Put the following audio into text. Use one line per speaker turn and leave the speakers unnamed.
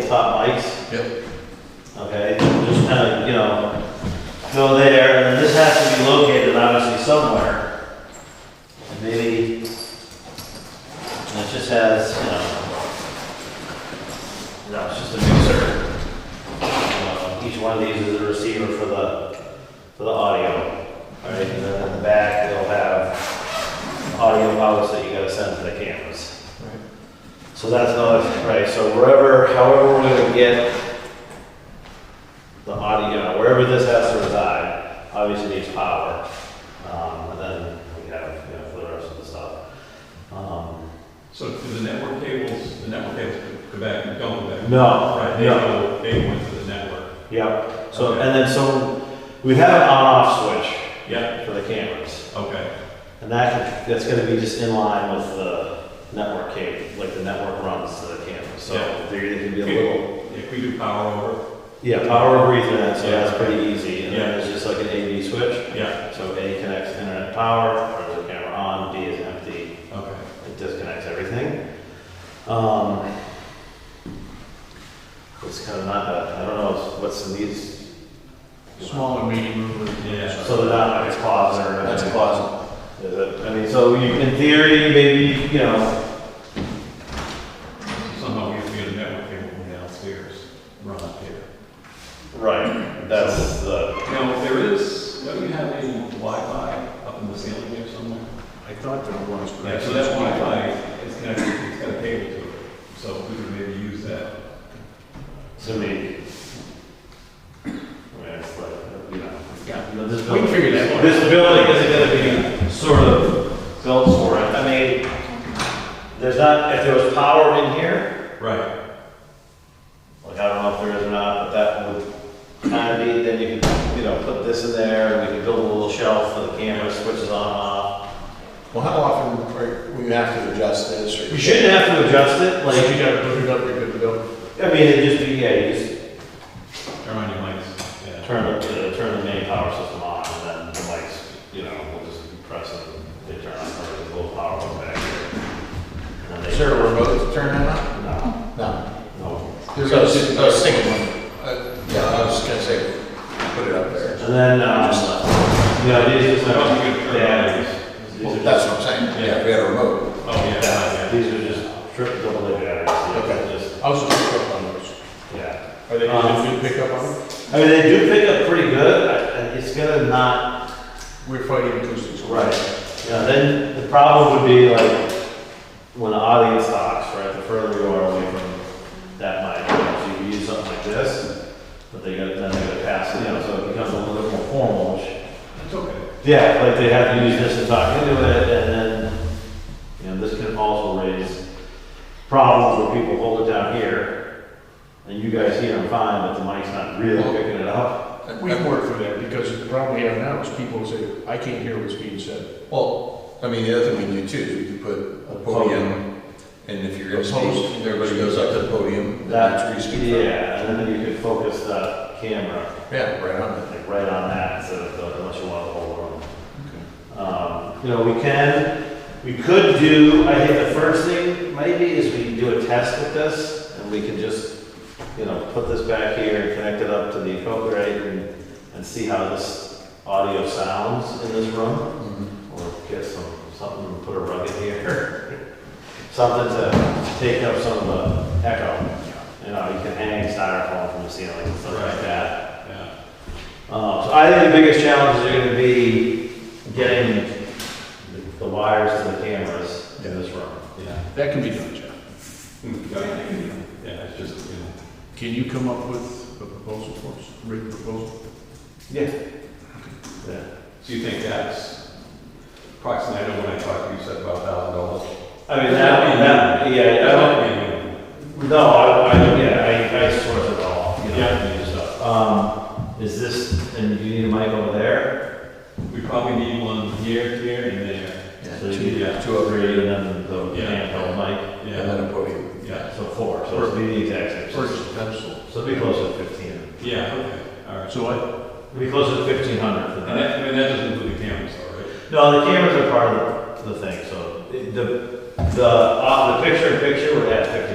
tabletop mics,
Yep,
okay? Just kind of, you know, go there, and this has to be located obviously somewhere. And Maybe, and it just has, you know, no, it's just a mixer. You know, Each one of these is a receiver for the, for the audio, all right? And then in the back, they'll have audio outlets that you gotta send to the cameras.
right.
So that's not, right, so wherever, however we're gonna get the audio, wherever this has to reside, obviously needs power. Um, and then we have, you know, for the rest of the stuff. Um,
So do the network cables, the network cables go back and don't go back?
No,
Right, they
no,
go, they went to the network.
yep, so, and then so, we have an on-off switch
Yeah,
for the cameras.
okay,
And that, that's gonna be just in line with the network cable, like the network runs to the camera, so
Yeah.
there could be a little
if we do power over,
Yeah, power over Ethernet, so
Yeah.
that's pretty easy. And
Yeah.
then it's just like an A B switch.
yeah,
So A connects internet power, turns the camera on, B is empty,
okay.
it disconnects everything. Um, it's kind of not that, I don't know what's in these.
Small and medium room.
Yeah.
So they're not like a closet or
That's a
anything.
closet.
Is it? I mean, so you, in theory, maybe, you know,
Somehow we have to get a network cable from downstairs, run up here.
right, that's the,
Now, if there is, don't you have any Wi-Fi up in the ceiling here somewhere?
I thought there was, but. I
Yeah, so
can't
that
speak to
Wi-Fi
it.
is connected, it's got a cable to it, so we could maybe use that.
to me. I mean, it's like, you know.
Yeah.
This
We can
building
figure that one. out.
This building isn't gonna be sort of built for it. I mean, there's not, if there was power in here,
Right,
like, I don't know if there is or not, but that would kind of be, then you could, you know, put this in there, and we could build a little shelf for the camera, switches on and off.
Well, how often are- will you have to adjust this or?
You shouldn't have to adjust it,
Like,
like,
you gotta put it up, you're good to go.
I mean, it just, be yeah, you just
turn on your mics, yeah.
turn it, to- turn the main power system on, and then the lights, you know, we'll just press it, they turn on, there's a little power goes back here. And then they-
Is there a remote to turn that on?
No,
No.
no.
There's a, uh, a single one. Uh, Yeah, I was just gonna say, put it up there.
And then, um, you know, these are just,
Well, you could turn
yeah, these
Well,
are
that's
just,
what I'm saying, yeah, we had a remote.
Oh, yeah, yeah.
yeah, these are just triple double A batteries, yeah,
Okay.
just,
I was just picking up on those.
yeah.
Are they
Um,
easy to pick up on?
I mean, they do pick up pretty good, I- I- it's gonna not,
We're fighting acoustics.
right, you know, then the problem would be like, when the audience talks, right, the further you are away from that mic, you know, so you could use something like this, but they gotta, then they gotta pass, you know, so it becomes a little bit more formal, which
It's okay.
Yeah, like they have to use this to talk into it, and then, you know, this can also raise problems where people hold it down here, and you guys hear them fine, but the mic's not really picking it up.
We
We've worked for that, because the problem we have now is people say, I can't hear what's being said.
Well, I mean, the other thing we do too, is we could put a podium, and if you're gonna
Opposed.
speak, everybody goes up to the podium, that's where
That,
you speak from.
yeah, and then you could focus the camera,
Yeah, right on it.
like, right on that, instead of, the- unless you want the whole room. Um, you know, we can, we could do, I think the first thing maybe is we can do a test with this and we can just, you know, put this back here and connect it up to the appropriate and, and see how this audio sounds in this room.
Mhm.
Or get some, something, put a rug in here. Something to take up some of the echo. You know, you can hang styrofoam from the ceiling and stuff like
Right.
that.
Yeah,
Uh, So I think the biggest challenges are gonna be getting the- the wires to the cameras in this room.
yeah.
That can be done, Jeff.
Hmm, Yeah, it's just, you know.
Can you come up with a proposal for us, a written proposal?
Yeah. Yeah.
So you think that's approximately, I know when I talked to you, you said about a thousand dollars?
I mean, that, that, yeah, I don't, no, I, I, yeah, I, I source it all, you know,
Yeah.
and use stuff. Um, is this, and you need a mic over there?
We probably need one here, here, and there.
Yeah,
So you
two-
need
two up
Three,
here,
and then the
Yeah.
handheld mic,
and
Yeah,
then a podium.
yeah,
so four, so it'll be the exact
Or
same.
just a pencil.
So it'll be close to fifteen.
yeah, okay, all right.
So I,
It'll be close to fifteen hundred for that.
And that, I mean, that doesn't include the cameras, all right?
No, the cameras are part of the thing, so the, the, uh, the picture-in-picture would add